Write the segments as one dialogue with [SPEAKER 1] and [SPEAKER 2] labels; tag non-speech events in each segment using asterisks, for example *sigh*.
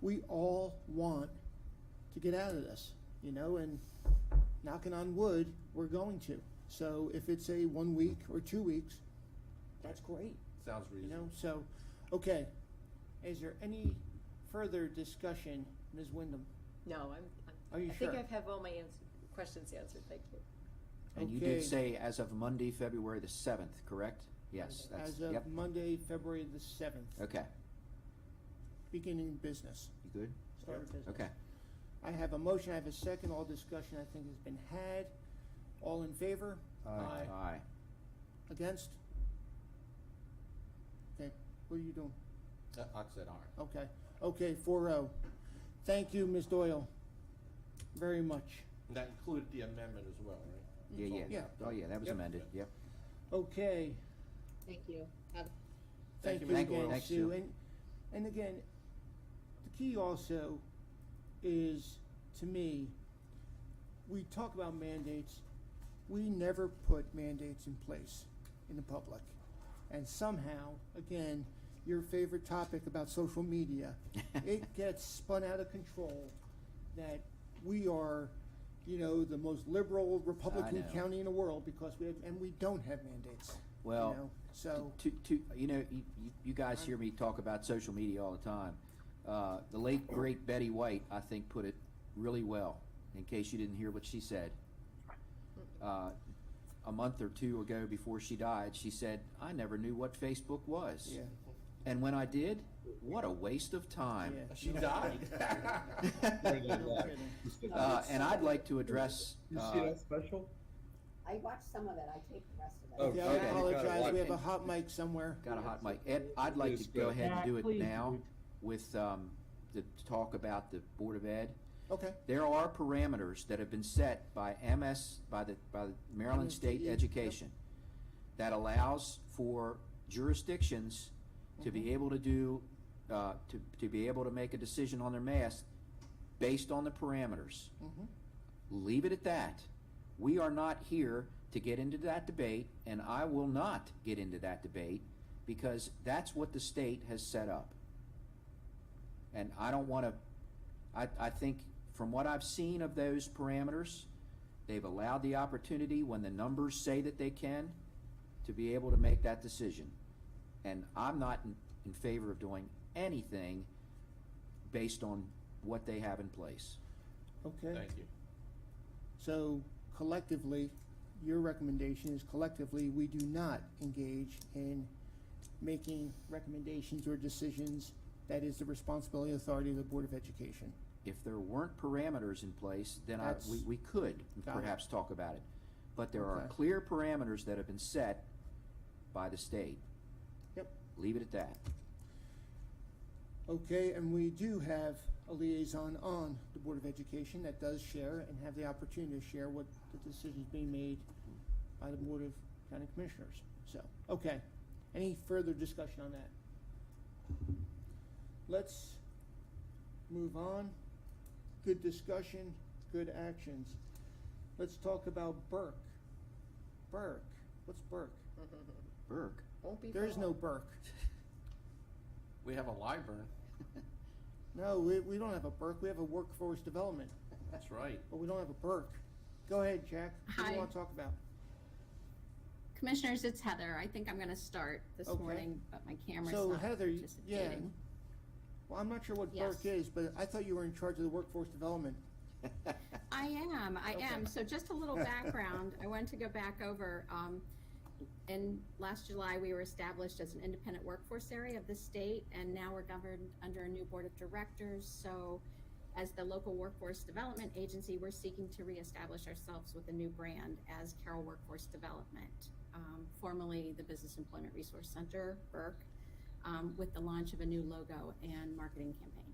[SPEAKER 1] we all want to get out of this, you know, and knocking on wood, we're going to. So if it's a one week or two weeks, that's great,
[SPEAKER 2] Sounds
[SPEAKER 1] you
[SPEAKER 2] reasonable.
[SPEAKER 1] know, so, okay. Is there any further discussion, Ms. Wyndham?
[SPEAKER 3] No, I'm,
[SPEAKER 1] Are you
[SPEAKER 3] I'm, I think
[SPEAKER 1] sure?
[SPEAKER 3] I've have all my ans- questions answered, thank you.
[SPEAKER 4] And you
[SPEAKER 1] Okay.
[SPEAKER 4] did say as of Monday, February the seventh, correct? Yes, that's,
[SPEAKER 1] As
[SPEAKER 4] yep,
[SPEAKER 1] of Monday, February the seventh,
[SPEAKER 4] okay,
[SPEAKER 1] beginning business,
[SPEAKER 4] you good?
[SPEAKER 1] start of business.
[SPEAKER 4] Okay,
[SPEAKER 1] I have a motion, I have a second, all discussion I think has been had. All in favor? Aye.
[SPEAKER 4] aye.
[SPEAKER 1] Against? Okay, what are you doing?
[SPEAKER 2] Uh, I said aren't.
[SPEAKER 1] Okay, okay, four oh. Thank you, Ms. Doyle, very much.
[SPEAKER 2] And That included the amendment as well, right?
[SPEAKER 4] Yeah,
[SPEAKER 2] It's all
[SPEAKER 4] yeah,
[SPEAKER 1] Mm-hmm. Yeah.
[SPEAKER 4] oh yeah, that was
[SPEAKER 1] Yep.
[SPEAKER 4] amended, yep.
[SPEAKER 1] Okay,
[SPEAKER 3] Thank you. Have-
[SPEAKER 1] thank
[SPEAKER 2] Thank
[SPEAKER 1] you
[SPEAKER 2] you, Ms. Doyle.
[SPEAKER 1] again,
[SPEAKER 4] Thanks,
[SPEAKER 1] Sue.
[SPEAKER 4] Sue.
[SPEAKER 1] And, and again, the key also is, to me, we talk about mandates, we never put mandates in place in the public. And somehow, again, your favorite topic about social media, it
[SPEAKER 4] *laughs*
[SPEAKER 1] gets spun out of control that we are, you know, the most liberal Republican
[SPEAKER 4] know.
[SPEAKER 1] county in the world because we have, and we don't have mandates. you
[SPEAKER 4] Well,
[SPEAKER 1] know? So,
[SPEAKER 4] To, to, you know, you, you- you guys hear me talk about social media all the time. Uh, the late, great Betty White, I think, put it really well, in case you didn't hear what she said. Uh, a month or two ago before she died, she said, I never knew what Facebook was.
[SPEAKER 1] yeah,
[SPEAKER 4] And when I did, what a waste of time.
[SPEAKER 1] yeah.
[SPEAKER 2] She died.
[SPEAKER 4] *laughs*
[SPEAKER 1] *laughs* No
[SPEAKER 5] Uh,
[SPEAKER 1] kidding.
[SPEAKER 4] Uh, and I'd like to address,
[SPEAKER 5] You see
[SPEAKER 4] uh,
[SPEAKER 5] that special?
[SPEAKER 6] I watched some of it, I taped the rest of it.
[SPEAKER 1] Yeah,
[SPEAKER 5] Oh,
[SPEAKER 1] I
[SPEAKER 4] Okay.
[SPEAKER 1] apologize, we have
[SPEAKER 4] Okay.
[SPEAKER 1] a hot mic somewhere.
[SPEAKER 4] got a hot mic, Ed, I'd like to
[SPEAKER 5] Yes,
[SPEAKER 4] go
[SPEAKER 5] go.
[SPEAKER 4] ahead and do it
[SPEAKER 7] Yeah, please
[SPEAKER 4] now
[SPEAKER 7] do.
[SPEAKER 4] with, um, the talk about the Board of Ed.
[SPEAKER 1] Okay,
[SPEAKER 4] There are parameters that have been set by MS, by the, by the Maryland State
[SPEAKER 1] MSDE, yep.
[SPEAKER 4] Education that allows for jurisdictions to be able to do, uh, to, to be able to make a decision on their mask based on the parameters.
[SPEAKER 1] mhm,
[SPEAKER 4] Leave it at that. We are not here to get into that debate, and I will not get into that debate because that's what the state has set up. And I don't want to, I, I think from what I've seen of those parameters, they've allowed the opportunity when the numbers say that they can to be able to make that decision. And I'm not in, in favor of doing anything based on what they have in place.
[SPEAKER 1] okay.
[SPEAKER 2] Thank you.
[SPEAKER 1] So collectively, your recommendation is collectively, we do not engage in making recommendations or decisions. That is the responsibility and authority of the Board of Education.
[SPEAKER 4] if there weren't parameters in place, then I, we,
[SPEAKER 1] That's-
[SPEAKER 4] we could
[SPEAKER 1] Got it.
[SPEAKER 4] perhaps talk about it. But there are
[SPEAKER 1] Okay.
[SPEAKER 4] clear parameters that have been set by the state.
[SPEAKER 1] Yep.
[SPEAKER 4] Leave it at that.
[SPEAKER 1] Okay, and we do have a liaison on the Board of Education that does share and have the opportunity to share what the decisions being made by the Board of County Commissioners. So, okay, any further discussion on that? Let's move on. Good discussion, good actions. Let's talk about Burke. Burke, what's Burke?
[SPEAKER 4] *laughs* Burke.
[SPEAKER 3] Won't be for
[SPEAKER 1] There is no
[SPEAKER 3] long.
[SPEAKER 1] Burke.
[SPEAKER 2] We have a Liburn.
[SPEAKER 1] No, we, we don't have a Burke, we have a workforce development.
[SPEAKER 2] That's right.
[SPEAKER 1] But we don't have a Burke. Go ahead, Jack. What do
[SPEAKER 8] Hi.
[SPEAKER 1] you want to talk about?
[SPEAKER 8] Commissioners, it's Heather. I think I'm going to start this
[SPEAKER 1] Okay.
[SPEAKER 8] morning, but my camera's
[SPEAKER 1] So
[SPEAKER 8] not
[SPEAKER 1] Heather, y- yeah.
[SPEAKER 8] participating.
[SPEAKER 1] Well, I'm not sure what
[SPEAKER 8] Yes.
[SPEAKER 1] Burke is, but I thought you were in charge of the workforce development.
[SPEAKER 8] I am, I
[SPEAKER 1] Okay.
[SPEAKER 8] am. So just a little background, I wanted to go back over, um, in last July, we were established as an independent workforce area of the state, and now we're governed under a new board of directors. So as the local workforce development agency, we're seeking to reestablish ourselves with a new brand as Carroll Workforce Development, um, formerly the Business Employment Resource Center, Burke, um, with the launch of a new logo and marketing campaign.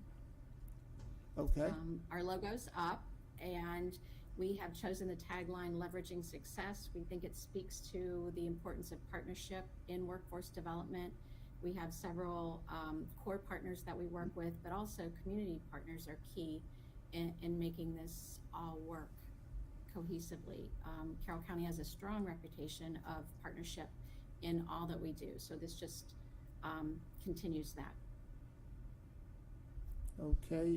[SPEAKER 1] Okay,
[SPEAKER 8] Um, our logo's up and we have chosen the tagline leveraging success. We think it speaks to the importance of partnership in workforce development. We have several um, core partners that we work with, but also community partners are key in, in making this all work cohesively. Um, Carroll County has a strong reputation of partnership in all that we do. So this just um, continues that.
[SPEAKER 1] Okay,